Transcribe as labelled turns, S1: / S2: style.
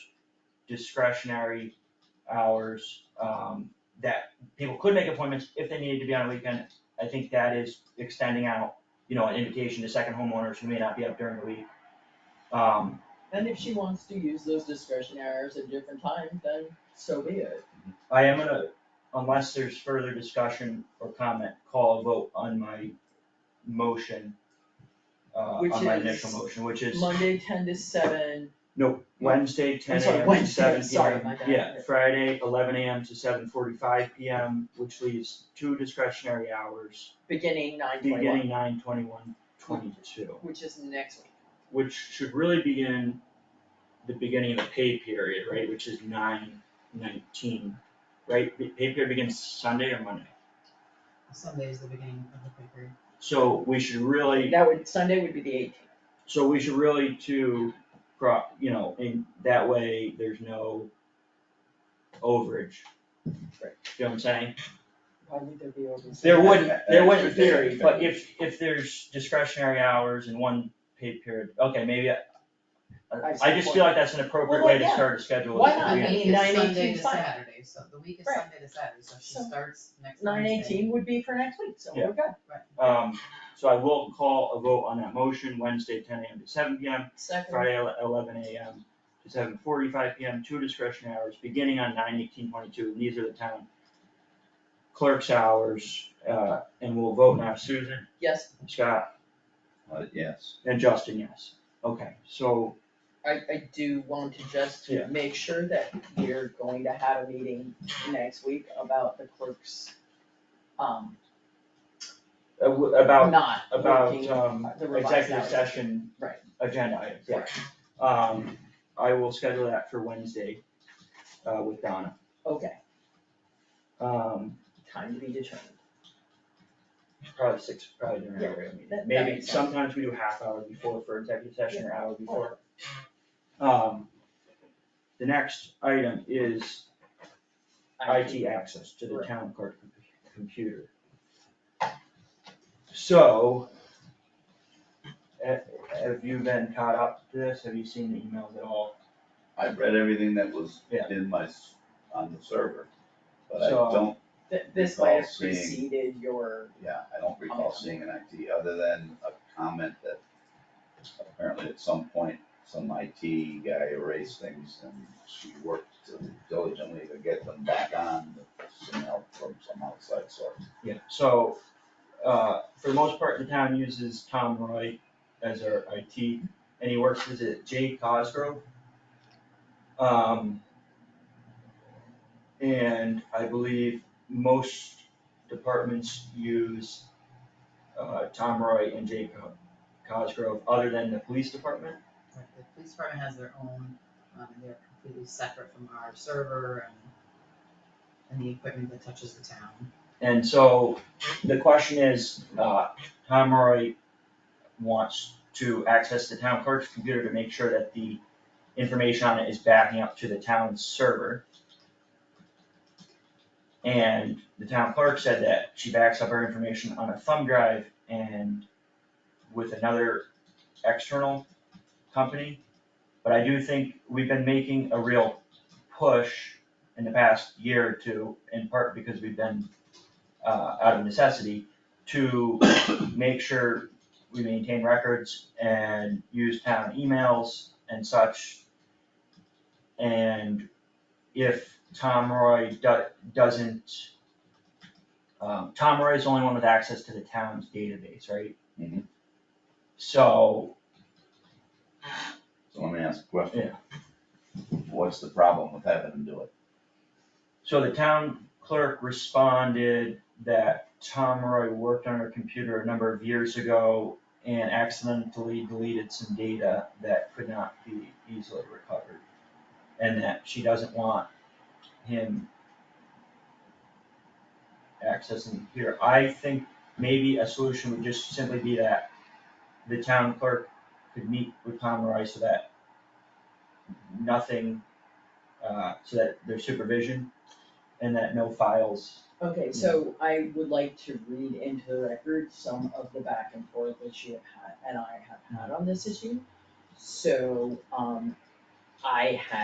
S1: discretionary hours, um, that people could make appointments if they needed to be on a weekend. I think that is extending out, you know, an invitation to second homeowners who may not be up during the week. Um,
S2: And if she wants to use those discretionary hours at different times, then so be it.
S1: I am gonna, unless there's further discussion or comment, call a vote on my motion. Uh,
S2: Which
S1: on my
S2: is
S1: initial motion, which is
S2: Monday, ten to seven,
S1: No, Wednesday, ten
S2: I'm sorry,
S1: AM to
S2: Wednesday,
S1: seven PM.
S2: sorry, my bad.
S1: Yeah, Friday, eleven AM to seven forty-five PM, which leaves two discretionary hours,
S2: beginning nine twenty-one,
S1: beginning nine twenty-one, twenty-two,
S2: which is next week.
S1: which should really begin the beginning of the pay period, right, which is nine nineteen, right? The pay period begins Sunday or Monday,
S3: Sunday is the beginning of the paper.
S1: so we should really
S2: That would, Sunday would be the eighteenth.
S1: So we should really too, pro, you know, in that way, there's no overage.
S2: Right.
S1: You know what I'm saying?
S2: Why would there be over?
S1: There wouldn't, there wouldn't in
S4: Extra day,
S1: theory, but
S4: okay.
S1: if, if there's discretionary hours in one paid period, okay, maybe I. I- I just feel like that's an appropriate way to
S2: Well,
S1: start a schedule.
S2: Why
S1: is
S2: not?
S1: if
S2: I
S1: we-
S2: mean,
S3: The week
S2: 9:18 is
S3: is Sunday to
S2: fine.
S3: Saturday, so the week is
S2: Right.
S3: Sunday to Saturday, so she
S2: So,
S3: starts next
S2: Nine
S3: Wednesday.
S2: eighteen would be for next week, so
S1: Yeah.
S2: we're good.
S1: Um, so I will call a vote on that motion Wednesday, ten AM to seven PM,
S2: Second,
S1: Friday, ele- eleven AM to seven forty-five PM, two discretionary hours, beginning on nine eighteen twenty-two, and these are the town clerk's hours, uh, and we'll vote now, Susan,
S2: yes,
S1: Scott,
S4: Uh, yes,
S1: and Justin, yes. Okay, so,
S2: I, I do want to just
S1: Yeah.
S2: make sure that we're going to have a meeting next week about the clerk's, um,
S1: uh, w- about,
S2: not
S1: about,
S2: working,
S1: um,
S2: the revised
S1: executive
S2: hours.
S1: session
S2: Right.
S1: agenda items, yeah. Um, I will schedule that for Wednesday, uh, with Donna.
S2: Okay,
S1: Um,
S2: time to be determined.
S1: probably six, probably during our regular meeting.
S2: that- that
S1: Maybe
S2: makes sense.
S1: sometimes we do half hour before for executive session or hour before. Um, the next item is IT access to the
S2: Correct.
S1: town clerk com- computer. So. ha- Have you been caught up to this? Have you seen the emails at all?
S4: I read everything that was
S1: Yeah.
S4: in my, s- on the server, but I
S1: So- um,
S4: don't,
S2: Th- This might have
S4: Recall seeing-
S2: preceded your,
S4: yeah, I don't recall
S2: Okay.
S4: seeing an IT, other than a comment that apparently at some point, some IT guy erased things and she worked diligently to get them back on with some help from some outside source.
S1: Yeah, so, uh, for the most part, the town uses Tom Roy as our IT, and he works with it Jay Cosgrove. Um, and I believe most departments use, uh, Tom Roy and Jay Co- Cosgrove, other than the police department.
S3: Right, the police department has their own, um, and they're completely separate from our server and and the equipment that touches the town.
S1: And so the question is, uh, Tom Roy wants to access the town clerk's computer to make sure that the information on it is backing up to the town server. And the town clerk said that she backs up her information on a thumb drive and with another external company. But I do think we've been making a real push in the past year or two, in part because we've been uh, out of necessity, to make sure we maintain records and use town emails and such. And if Tom Roy do- doesn't, um, Tom Roy is the only one with access to the town's database, right?
S4: Mhm.
S1: So,
S4: So let me ask a question.
S1: Yeah.
S4: What's the problem with having them do it?
S1: so the town clerk responded that Tom Roy worked on her computer a number of years ago and accidentally deleted some data that could not be easily recovered. And that she doesn't want him accessing here. I think maybe a solution would just simply be that the town clerk could meet with Tom Roy so that nothing, uh, so that there's supervision and that no files
S2: okay, so I would like to read into the record some of the back and forth that you have had, and I have had on this issue. So, um, I had